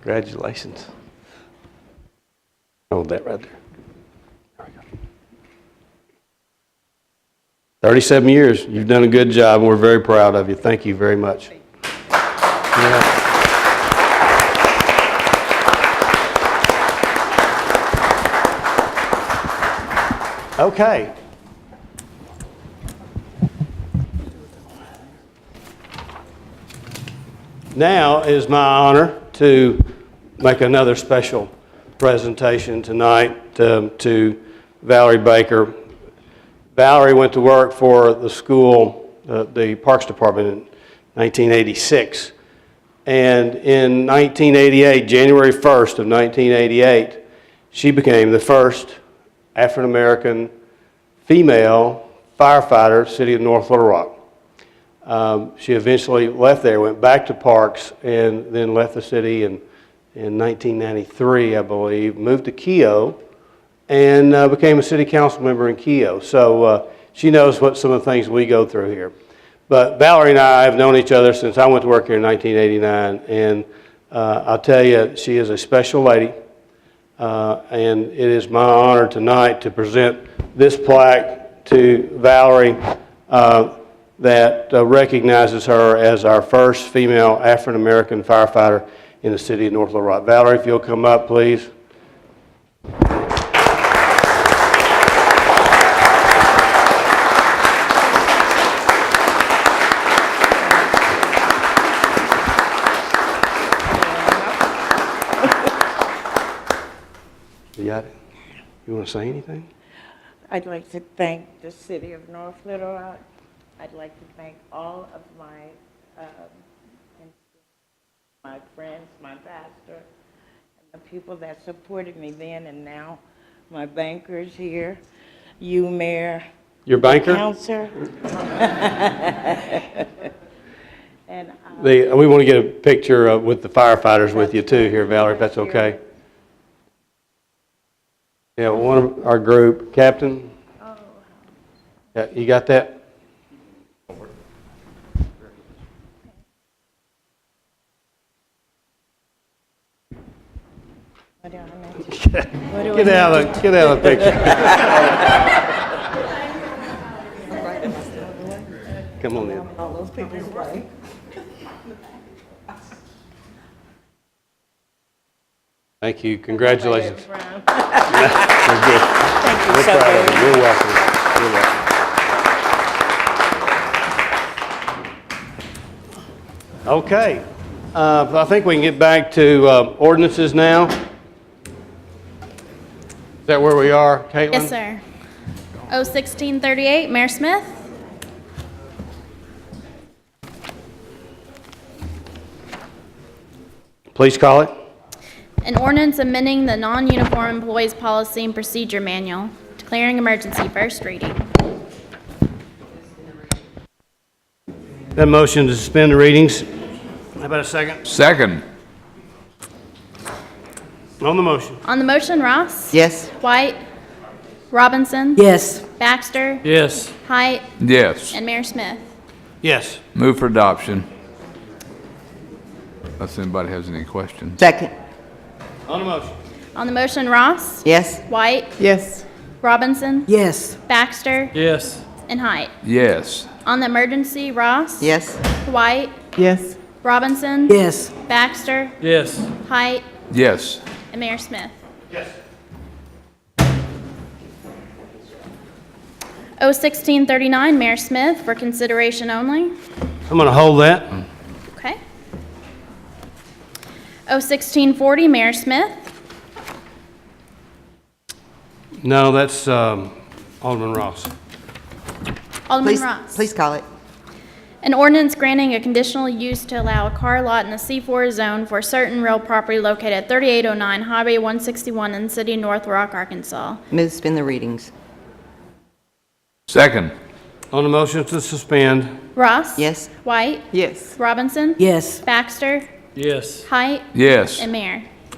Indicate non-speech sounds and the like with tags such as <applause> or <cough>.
Congratulations. Hold that right there. There we go. 37 years, you've done a good job, and we're very proud of you. Thank you very much. Yeah. Okay. Now is my honor to make another special presentation tonight um, to Valerie Baker. Valerie went to work for the school, uh, the Parks Department in 1986. And in 1988, January 1st of 1988, she became the first African-American female firefighter, city of North Little Rock. Um, she eventually left there, went back to Parks, and then left the city in, in 1993, I believe, moved to Keogh, and uh, became a city council member in Keogh. So uh, she knows what some of the things we go through here. But Valerie and I have known each other since I went to work here in 1989, and uh, I'll tell you, she is a special lady. Uh, And it is my honor tonight to present this plaque to Valerie uh, that uh, recognizes her as our first female African-American firefighter in the city of North Little Rock. Valerie, if you'll come up, please. You got it? You want to say anything? I'd like to thank the city of North Little Rock. I'd like to thank all of my, um, and my friends, my pastor, and the people that supported me then and now, my bankers here, you, Mayor, Your banker? Counselor. <laughs> And uh, The- We want to get a picture uh, with the firefighters with you too here, Valerie, if that's okay. Yeah, one of our group, Captain? Yeah, You got that? what do I need to- Get out of, the- get out of the picture. Come on in. All those people away. Thank you, congratulations. Brown. You're good. Thank you We're so proud of very you. You're welcome. You're welcome. Okay, Uh, I think we can get back to uh, ordinances now. Is that where we are, Caitlin? Yes, sir. O sixteen thirty-eight, Mayor Smith. Please call it. An ordinance amending the non-uniform employees policy and procedure manual, declaring emergency, first reading. That motion to suspend the readings. How about a second? Second. On the motion. On the motion, Ross? Yes. White? Robinson? Yes. Baxter? Yes. Height? Yes. And Mayor Smith. Yes. Move for adoption. Unless anybody has any questions. Second. On the motion. On the motion, Ross? Yes. White? Yes. Robinson? Yes. Baxter? Yes. And Height. Yes. On the emergency, Ross? Yes. White? Yes. Robinson? Yes. Baxter? Yes. Height? Yes. And Mayor Smith. Yes. O sixteen thirty-nine, Mayor Smith, for consideration only. I'm going to hold that. Okay. O sixteen forty, Mayor Smith. No, that's um, Alderman Ross. Alderman Please, Ross. please call it. An ordinance granting a conditional use to allow a car lot in the C4 zone for certain real property located at 3809 Highway 161 in the city of North Rock, Arkansas. Move spin the readings. Second. On the motion to suspend. Ross? Yes. White? Yes. Robinson? Yes. Baxter? Yes. Height? Yes. And Mayor.